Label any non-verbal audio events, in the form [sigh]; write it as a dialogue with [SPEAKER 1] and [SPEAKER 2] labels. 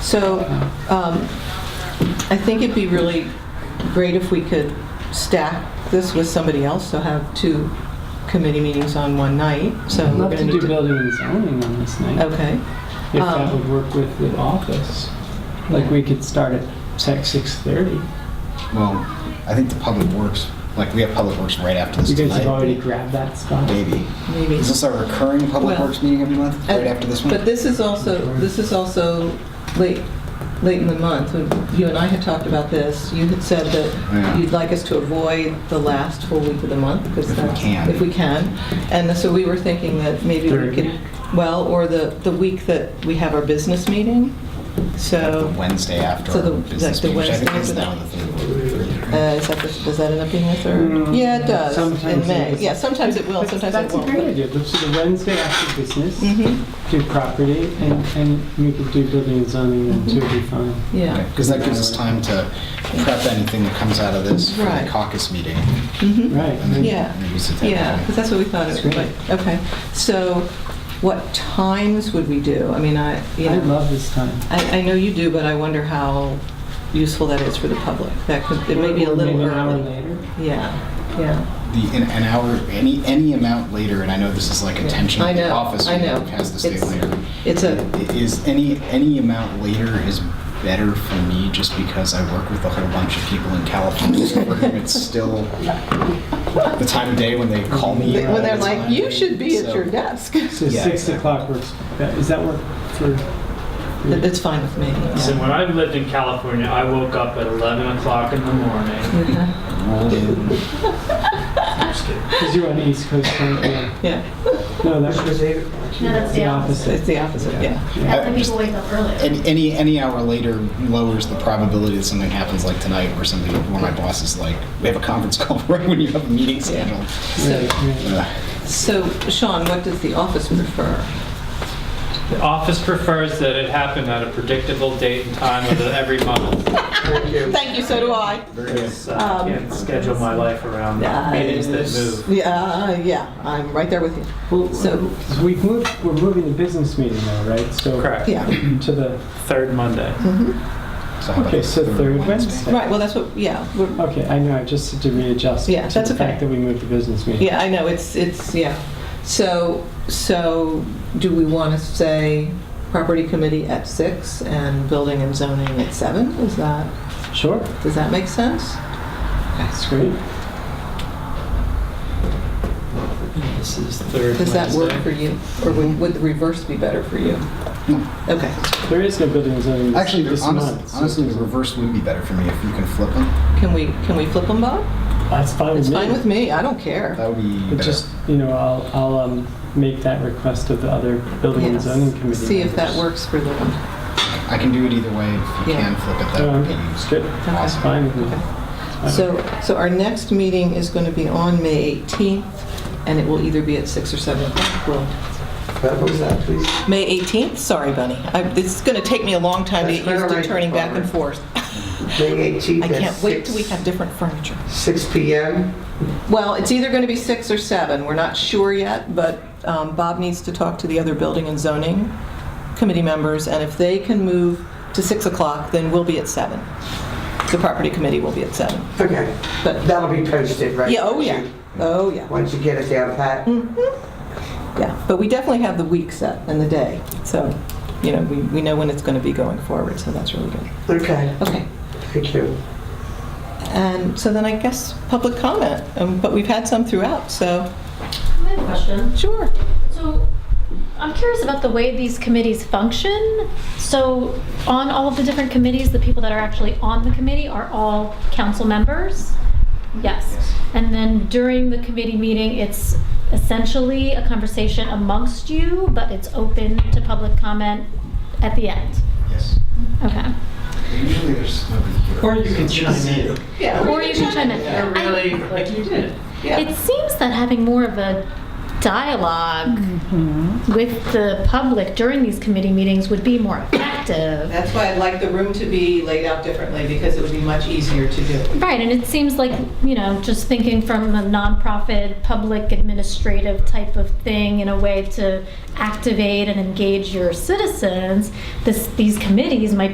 [SPEAKER 1] So um, I think it'd be really great if we could stack this with somebody else, so have two committee meetings on one night, so
[SPEAKER 2] I'd
[SPEAKER 1] we're
[SPEAKER 2] love
[SPEAKER 1] going to
[SPEAKER 2] to Oh, do
[SPEAKER 1] need to...
[SPEAKER 2] building and zoning on this night,
[SPEAKER 1] Okay,
[SPEAKER 2] if that
[SPEAKER 1] um,
[SPEAKER 2] would work with the office. Like, we could start at sec 6:30.
[SPEAKER 3] Well, I think the public works, like, we have public works right after this
[SPEAKER 2] You guys have
[SPEAKER 3] tonight.
[SPEAKER 2] already grabbed that spot.
[SPEAKER 3] Maybe.
[SPEAKER 1] maybe.
[SPEAKER 3] Is this our recurring public
[SPEAKER 1] Well,
[SPEAKER 3] works meeting every month, right
[SPEAKER 1] Uh,
[SPEAKER 3] after this
[SPEAKER 1] But
[SPEAKER 3] one?
[SPEAKER 1] this is also, this is also late, late in the month. When You and I had talked about this. You had said
[SPEAKER 3] Yeah.
[SPEAKER 1] that you'd like us to avoid the last full week of the month because
[SPEAKER 3] If we
[SPEAKER 1] that's...
[SPEAKER 3] can.
[SPEAKER 1] If we can. And so we were thinking that maybe we
[SPEAKER 2] Third.
[SPEAKER 1] could, well, or the, the week that we have our business meeting.
[SPEAKER 3] The
[SPEAKER 1] So,
[SPEAKER 3] Wednesday after
[SPEAKER 1] So the-
[SPEAKER 3] our
[SPEAKER 1] like
[SPEAKER 3] business
[SPEAKER 1] the
[SPEAKER 3] meeting, which I think is
[SPEAKER 1] Wednesday
[SPEAKER 3] now the third.
[SPEAKER 1] uh, is that, the- does that end up being the third?
[SPEAKER 2] Mm,
[SPEAKER 1] Yeah, it does.
[SPEAKER 2] sometimes
[SPEAKER 1] In
[SPEAKER 2] it
[SPEAKER 1] May.
[SPEAKER 2] is.
[SPEAKER 1] Yeah, sometimes it will,
[SPEAKER 2] That's
[SPEAKER 1] sometimes it
[SPEAKER 2] that's a
[SPEAKER 1] won't.
[SPEAKER 2] great idea, let's do the Wednesday after business,
[SPEAKER 1] hmm
[SPEAKER 2] do property, and, and we could do building and zoning, and two would be fine.
[SPEAKER 1] yeah.
[SPEAKER 3] Because that gives us time to prep anything that comes out of this for the
[SPEAKER 1] Right.
[SPEAKER 3] caucus meeting.
[SPEAKER 1] Mhm.
[SPEAKER 2] Right.
[SPEAKER 3] and then
[SPEAKER 1] Yeah.
[SPEAKER 3] maybe sit down.
[SPEAKER 1] Yeah, because that's what we thought it
[SPEAKER 2] That's
[SPEAKER 1] was
[SPEAKER 2] great.
[SPEAKER 1] like. Okay, so what times would we do? I mean, I, you
[SPEAKER 2] I
[SPEAKER 1] know,
[SPEAKER 2] love this time.
[SPEAKER 1] I, I know you do, but I wonder how useful that is for the public. That could, it may be a
[SPEAKER 2] Or
[SPEAKER 1] little
[SPEAKER 2] maybe an hour
[SPEAKER 1] early.
[SPEAKER 2] later.
[SPEAKER 1] Yeah, yeah.
[SPEAKER 3] The, in an hour, any, any amount later, and I know this is like a
[SPEAKER 1] Yeah.
[SPEAKER 3] tension
[SPEAKER 1] I
[SPEAKER 3] with the
[SPEAKER 1] know,
[SPEAKER 3] office,
[SPEAKER 1] I
[SPEAKER 3] we
[SPEAKER 1] know.
[SPEAKER 3] has to stay
[SPEAKER 1] It's-
[SPEAKER 3] later.
[SPEAKER 1] It's a,
[SPEAKER 3] Is any, any amount later is better for me just because I work with a whole bunch of people
[SPEAKER 1] [laughs]
[SPEAKER 3] in California. so for whom It's still the time of day when they call me. all
[SPEAKER 1] when they're
[SPEAKER 3] the
[SPEAKER 1] like,
[SPEAKER 3] time.
[SPEAKER 1] you should be at
[SPEAKER 3] So-
[SPEAKER 1] your desk.
[SPEAKER 2] So
[SPEAKER 3] Yeah,
[SPEAKER 2] 6
[SPEAKER 3] exactly.
[SPEAKER 2] o'clock works, does that work for?
[SPEAKER 1] It's fine with me. yeah.
[SPEAKER 4] So when I've lived in California, I woke up at 11 o'clock in the morning.
[SPEAKER 1] Yeah.
[SPEAKER 3] Rolled in.
[SPEAKER 4] Just kidding.
[SPEAKER 2] Because you're on the East Coast, right? Yeah.
[SPEAKER 1] Yeah,
[SPEAKER 2] No, that's
[SPEAKER 5] No, that's
[SPEAKER 2] the
[SPEAKER 5] the
[SPEAKER 2] opposite.
[SPEAKER 1] it's the opposite, yeah.
[SPEAKER 5] That's when
[SPEAKER 3] Just-
[SPEAKER 5] people wake up early.
[SPEAKER 3] Any, any any hour later lowers the probability that something happens like tonight, where somebody, where my boss is like, "We have a conference call [laughs] right when you have a meeting scheduled."
[SPEAKER 1] So,
[SPEAKER 2] Right, right.
[SPEAKER 3] Uh,
[SPEAKER 1] so Sean, what does the office prefer?
[SPEAKER 4] The office prefers that it happen at a predictable date and time of the- every month.
[SPEAKER 1] Thank you, so do I.
[SPEAKER 4] Because uh,
[SPEAKER 1] Um,
[SPEAKER 4] I can't schedule my life around meetings that move.
[SPEAKER 1] Yeah, yeah, I'm right there with you.
[SPEAKER 2] Well,
[SPEAKER 1] So-
[SPEAKER 2] so we've moved, we're moving the business meeting now, right? So
[SPEAKER 4] Correct.
[SPEAKER 1] Yeah.
[SPEAKER 2] To the,
[SPEAKER 4] Third Monday.
[SPEAKER 3] so how about
[SPEAKER 2] okay, so third Wednesday.
[SPEAKER 1] Right, well, that's what, yeah, we're,
[SPEAKER 2] Okay, I know, I just had to readjust.
[SPEAKER 1] Yeah, that's
[SPEAKER 2] To the
[SPEAKER 1] okay.
[SPEAKER 2] fact that we moved the business meeting.
[SPEAKER 1] Yeah, I know, it's, it's, yeah. So, so do we want to say property committee at six and building and zoning at seven? Is that,
[SPEAKER 2] Sure,
[SPEAKER 1] does that make sense?
[SPEAKER 2] that's great.
[SPEAKER 4] This is third
[SPEAKER 1] Does that work for
[SPEAKER 4] Wednesday.
[SPEAKER 1] you? Or would, would the reverse be better for you?
[SPEAKER 2] Hmm.
[SPEAKER 1] Okay,
[SPEAKER 2] There is no building zoning this
[SPEAKER 3] Actually,
[SPEAKER 2] this
[SPEAKER 3] honestly,
[SPEAKER 2] month. so-
[SPEAKER 3] honestly, the reverse would be better for me if you can flip them.
[SPEAKER 1] can we, can we flip them, Bob?
[SPEAKER 2] That's fine with
[SPEAKER 1] It's
[SPEAKER 2] me. Uh,
[SPEAKER 1] fine with me, I don't care.
[SPEAKER 3] That would be
[SPEAKER 2] But
[SPEAKER 3] better.
[SPEAKER 2] just, you know, I'll, I'll um, make that request of the other building and
[SPEAKER 1] Yes.
[SPEAKER 2] zoning committee.
[SPEAKER 1] See if that
[SPEAKER 2] members.
[SPEAKER 1] works for them.
[SPEAKER 3] I can do it either way. If you
[SPEAKER 1] Yeah.
[SPEAKER 3] can flip it, that
[SPEAKER 2] No,
[SPEAKER 3] would
[SPEAKER 2] I'm
[SPEAKER 3] be
[SPEAKER 2] straight, that's
[SPEAKER 3] awesome.
[SPEAKER 2] fine with me.
[SPEAKER 1] Okay.
[SPEAKER 2] I
[SPEAKER 1] So, so our next meeting is going to be on May 18th, and it will either be at 6 or 7 o'clock. We'll-
[SPEAKER 6] What was that, please?
[SPEAKER 1] May 18th? Sorry, Bunny. I- This is going to take me a long time to get
[SPEAKER 6] That's quite
[SPEAKER 1] used
[SPEAKER 6] all
[SPEAKER 1] to
[SPEAKER 6] right,
[SPEAKER 1] turning back and forth.
[SPEAKER 6] May 18th
[SPEAKER 1] I
[SPEAKER 6] at
[SPEAKER 1] can't wait
[SPEAKER 6] six-
[SPEAKER 1] till we have different furniture.
[SPEAKER 6] six PM?
[SPEAKER 1] Well, it's either going to be 6 or 7. We're not sure yet, but um, Bob needs to talk to the other building and zoning committee members, and if they can move to 6 o'clock, then we'll be at 7. The property committee will be at 7.
[SPEAKER 6] Okay,
[SPEAKER 1] But,
[SPEAKER 6] that'll be posted, right?
[SPEAKER 1] yeah, oh yeah, oh yeah.
[SPEAKER 6] Once you get it down pat?
[SPEAKER 1] Yeah, but we definitely have the week set and the day, so, you know, we we know when it's going to be going forward, so that's really good.
[SPEAKER 6] Okay,
[SPEAKER 1] Okay.
[SPEAKER 6] thank you.
[SPEAKER 1] And Um, so then I guess public comment, um, but we've had some throughout, so.
[SPEAKER 5] I have a question.
[SPEAKER 1] Sure.
[SPEAKER 5] So, I'm curious about the way these committees function. So, on all of the different committees, the people that are actually on the committee are all council members? Yes. And then during the committee meeting, it's essentially a conversation amongst you, but it's open to public comment at the end?
[SPEAKER 3] Yes.
[SPEAKER 5] Okay.
[SPEAKER 3] Usually there's nobody here.
[SPEAKER 2] Or you can chime in.
[SPEAKER 5] Or you can chime in. I-
[SPEAKER 2] like you did.
[SPEAKER 5] It seems that having more of a dialog with the public during these committee meetings would be more effective.
[SPEAKER 1] That's why I'd like the room to be laid out differently, because it would be much easier to do.
[SPEAKER 5] Right, and it seems like, you know, just thinking from a nonprofit, public administrative type of thing in a way to activate and engage your citizens, this, these committees might be.